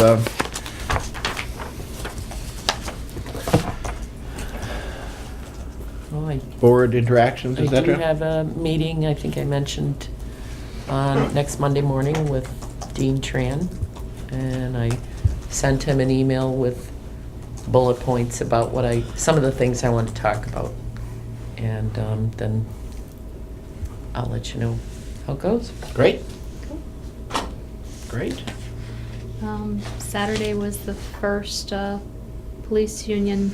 uh, Well, Oh, I board interactions, I et cetera? do have a meeting, I think I mentioned, on next Monday morning with Dean Tran. And I sent him an email with bullet points about what I, some of the things I want to talk about. And um, then I'll let you know how it goes. Great. Great. Um, Saturday was the first uh, police union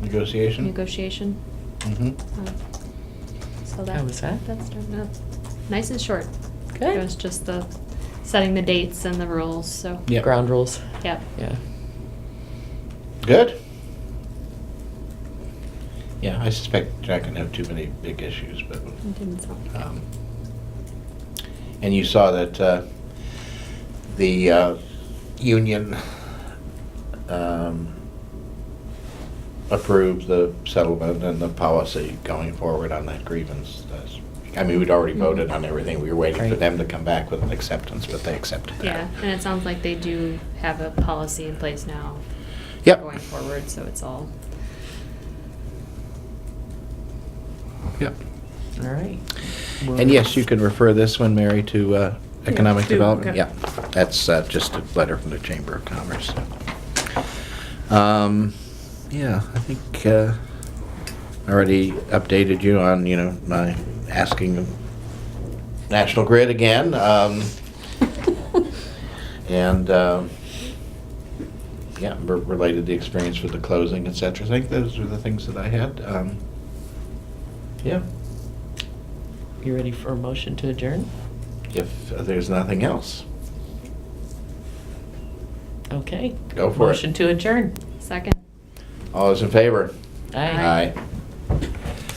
Negotiation? negotiation. Mhm. Um, so that How was that? That's no, nice and short. It was Good. just the setting the dates and the rules. So Yep. Ground rules, yeah. yeah. Good. Yeah, I suspect Jack can have too many big issues, but, It didn't sound like it. um, and you saw that, uh, the, uh, union, um, approved the settlement and the policy going forward on that grievance. That's- I mean, we'd already voted on everything. We were waiting for Right. them to come back with an acceptance, but they accepted that. Yeah, and it sounds like they do have a policy in place now. Yep. Going forward, so it's all Yep. All right. And yes, you can refer this one, Mary, to uh, Economic to- Development. okay. Yeah, that's uh, just a letter from the Chamber of Commerce. Um, Yeah, I think uh, I already updated you on, you know, my asking of National Grid again. um, And, um, yeah, re- related the experience with the closing, et cetera. I think those were the things that I had. Um, Yeah, You ready for a motion to adjourn? if there's nothing else. Okay. Go for it. Motion to adjourn. second. All those in favor? Aye. Aye.